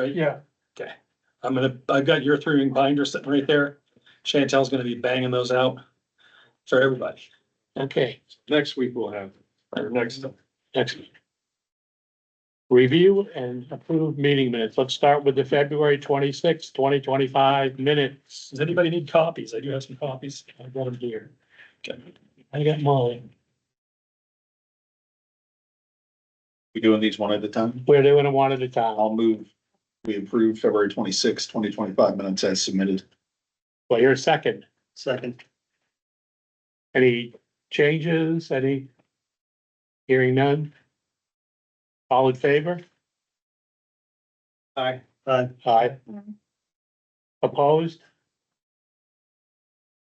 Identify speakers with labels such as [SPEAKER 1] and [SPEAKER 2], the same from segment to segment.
[SPEAKER 1] Right?
[SPEAKER 2] Yeah.
[SPEAKER 1] Okay, I'm gonna, I've got your three ring binder sitting right there. Chantel's gonna be banging those out for everybody.
[SPEAKER 2] Okay,
[SPEAKER 3] Next week we'll have, or next,
[SPEAKER 2] next. Review and approve meeting minutes. Let's start with the February twenty-sixth, twenty twenty-five minutes.
[SPEAKER 1] Does anybody need copies? I do have some copies.
[SPEAKER 2] I got them here.
[SPEAKER 1] Okay.
[SPEAKER 2] I got Molly.
[SPEAKER 4] We doing these one at a time?
[SPEAKER 2] We're doing it one at a time.
[SPEAKER 4] I'll move. We approve February twenty-sixth, twenty twenty-five minutes as submitted.
[SPEAKER 2] Well, you're second.
[SPEAKER 4] Second.
[SPEAKER 2] Any changes? Any? Hearing none? All in favor?
[SPEAKER 3] Aye.
[SPEAKER 4] Aye.
[SPEAKER 2] Aye. Opposed?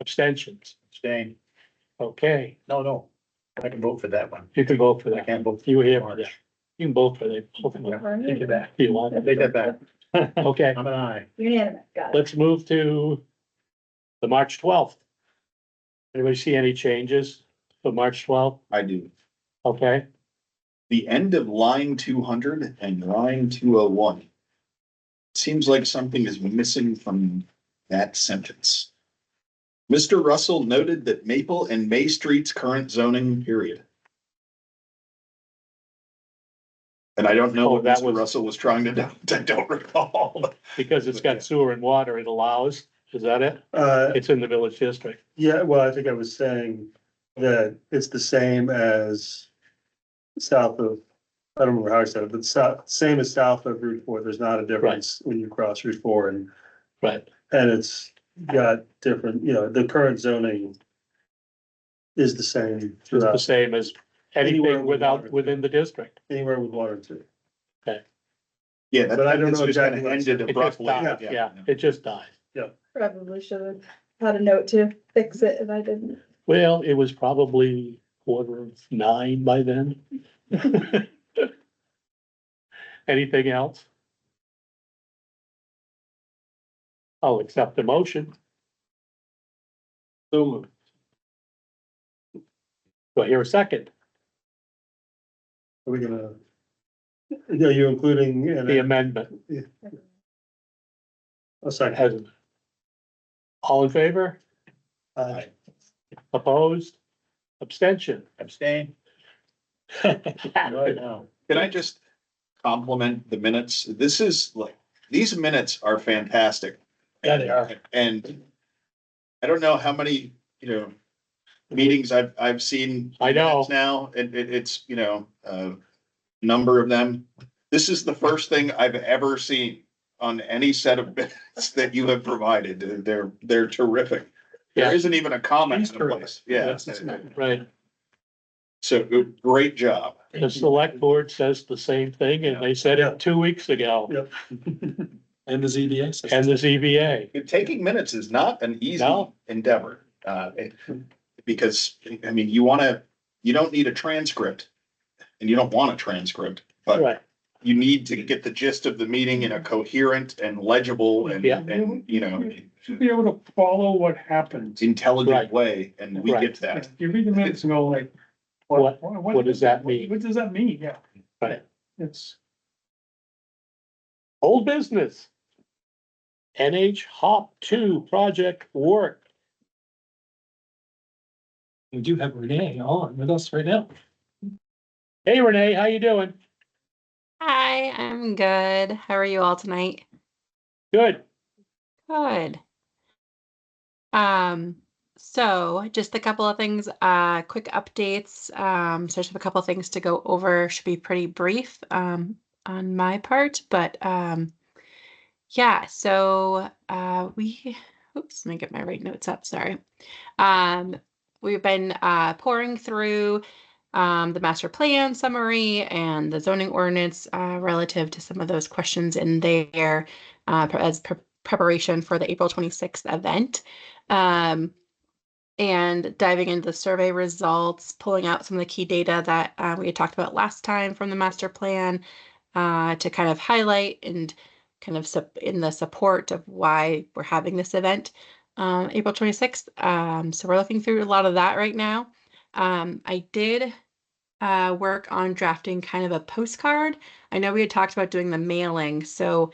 [SPEAKER 2] Abstentions?
[SPEAKER 4] Jane,
[SPEAKER 2] Okay,
[SPEAKER 4] no, no, I can vote for that one.
[SPEAKER 2] you can vote for
[SPEAKER 4] I
[SPEAKER 2] that.
[SPEAKER 4] can't vote.
[SPEAKER 2] You were here for that. You can vote for that. both of them,
[SPEAKER 5] Or
[SPEAKER 4] Take it
[SPEAKER 5] unanimous.
[SPEAKER 4] back.
[SPEAKER 2] if you want.
[SPEAKER 4] Take that back.
[SPEAKER 2] Okay,
[SPEAKER 4] I'm an aye.
[SPEAKER 5] Unanimous, got it.
[SPEAKER 2] let's move to the March twelfth. Anybody see any changes for March twelfth?
[SPEAKER 4] I do.
[SPEAKER 2] Okay,
[SPEAKER 4] The end of line two hundred and line two oh one. Seems like something is missing from that sentence. Mr. Russell noted that Maple and May Street's current zoning period. And I don't know
[SPEAKER 2] Oh,
[SPEAKER 4] what
[SPEAKER 2] that
[SPEAKER 4] Mr.
[SPEAKER 2] was-
[SPEAKER 4] Russell was trying to do, I don't recall.
[SPEAKER 2] because it's got sewer and water, it allows, is that it?
[SPEAKER 6] Uh,
[SPEAKER 2] It's in the village district.
[SPEAKER 6] yeah, well, I think I was saying that it's the same as south of, I don't remember how I said it, but south, same as south of Route Four. There's not a difference when you cross Route Four and,
[SPEAKER 2] Right,
[SPEAKER 6] and it's got different, you know, the current zoning is the same
[SPEAKER 2] it's the
[SPEAKER 6] throughout,
[SPEAKER 2] same as
[SPEAKER 6] Anywhere
[SPEAKER 2] anything
[SPEAKER 6] with
[SPEAKER 2] without,
[SPEAKER 6] water.
[SPEAKER 2] within the district.
[SPEAKER 6] anywhere with water too.
[SPEAKER 4] Yeah, that-
[SPEAKER 6] But I don't
[SPEAKER 4] that's
[SPEAKER 6] know
[SPEAKER 4] just kinda
[SPEAKER 6] exactly what it
[SPEAKER 4] Ended
[SPEAKER 2] It just
[SPEAKER 4] abruptly.
[SPEAKER 2] dies, yeah, it just dies.
[SPEAKER 5] Probably should have had a note to fix it if I didn't.
[SPEAKER 2] Well, it was probably quarter of nine by then. Anything else? I'll accept the motion.
[SPEAKER 3] so moved.
[SPEAKER 2] Do I hear a second?
[SPEAKER 6] Are we gonna? Are you including in
[SPEAKER 2] The
[SPEAKER 6] a-
[SPEAKER 2] amendment
[SPEAKER 6] a second?
[SPEAKER 2] has. All in favor?
[SPEAKER 6] Uh,
[SPEAKER 2] Opposed? Abstention?
[SPEAKER 4] Abstain.
[SPEAKER 2] Right.
[SPEAKER 3] now.
[SPEAKER 4] Can I just compliment the minutes? This is like, these minutes are fantastic.
[SPEAKER 2] Yeah, they are.
[SPEAKER 4] And I don't know how many, you know, meetings I've, I've seen.
[SPEAKER 2] I know.
[SPEAKER 4] Now, and it, it's, you know, a number of them. This is the first thing I've ever seen on any set of minutes that you have provided. They're, they're terrific.
[SPEAKER 2] Yeah.
[SPEAKER 4] There isn't even a comment
[SPEAKER 1] He's
[SPEAKER 4] in a place.
[SPEAKER 1] terrific.
[SPEAKER 4] Yeah.
[SPEAKER 1] That's- that's nice.
[SPEAKER 4] So great job.
[SPEAKER 2] The select board says the same thing and they said it two weeks ago.
[SPEAKER 6] Yep.
[SPEAKER 1] And the ZBA says.
[SPEAKER 2] And E the ZBA.
[SPEAKER 4] Taking minutes is not an easy
[SPEAKER 2] No. Hmm.
[SPEAKER 4] endeavor, uh, it- because, I mean, you wanna, you don't need a transcript. And you don't want a transcript, but
[SPEAKER 2] Right,
[SPEAKER 4] you need to get the gist of the meeting in a coherent and legible and,
[SPEAKER 2] Yeah. Mm-hmm.
[SPEAKER 4] and, you know,
[SPEAKER 7] should be able to follow what happened.
[SPEAKER 4] intelligent
[SPEAKER 2] Right.
[SPEAKER 4] way, and we
[SPEAKER 2] Right.
[SPEAKER 4] get that.
[SPEAKER 7] You read the minutes and go like.
[SPEAKER 2] What- what does that mean?
[SPEAKER 7] What does that mean? Yeah.
[SPEAKER 2] Right.
[SPEAKER 7] It's,
[SPEAKER 2] old business. NH Hop two project work.
[SPEAKER 1] We do have Renee on with us right now.
[SPEAKER 2] Hey Renee, how you doing?
[SPEAKER 8] Hi, I'm good. How are you all tonight?
[SPEAKER 2] Good.
[SPEAKER 8] Good. Um, so just a couple of things, uh, quick updates. Um, so I just have a couple of things to go over. Should be pretty brief, um, on my part, but um, yeah, so uh, we, oops, let me get my right notes up. Sorry. Um, we've been uh, pouring through um, the master plan summary and the zoning ordinance uh, relative to some of those questions in there uh, pre- as pre- preparation for the April 26th event. Um, and diving into the survey results, pulling out some of the key data that uh, we had talked about last time from the master plan uh, to kind of highlight and kind of sup- in the support of why we're having this event um, April 26th. Um, so we're looking through a lot of that right now. Um, I did uh, work on drafting kind of a postcard. I know we had talked about doing the mailing, so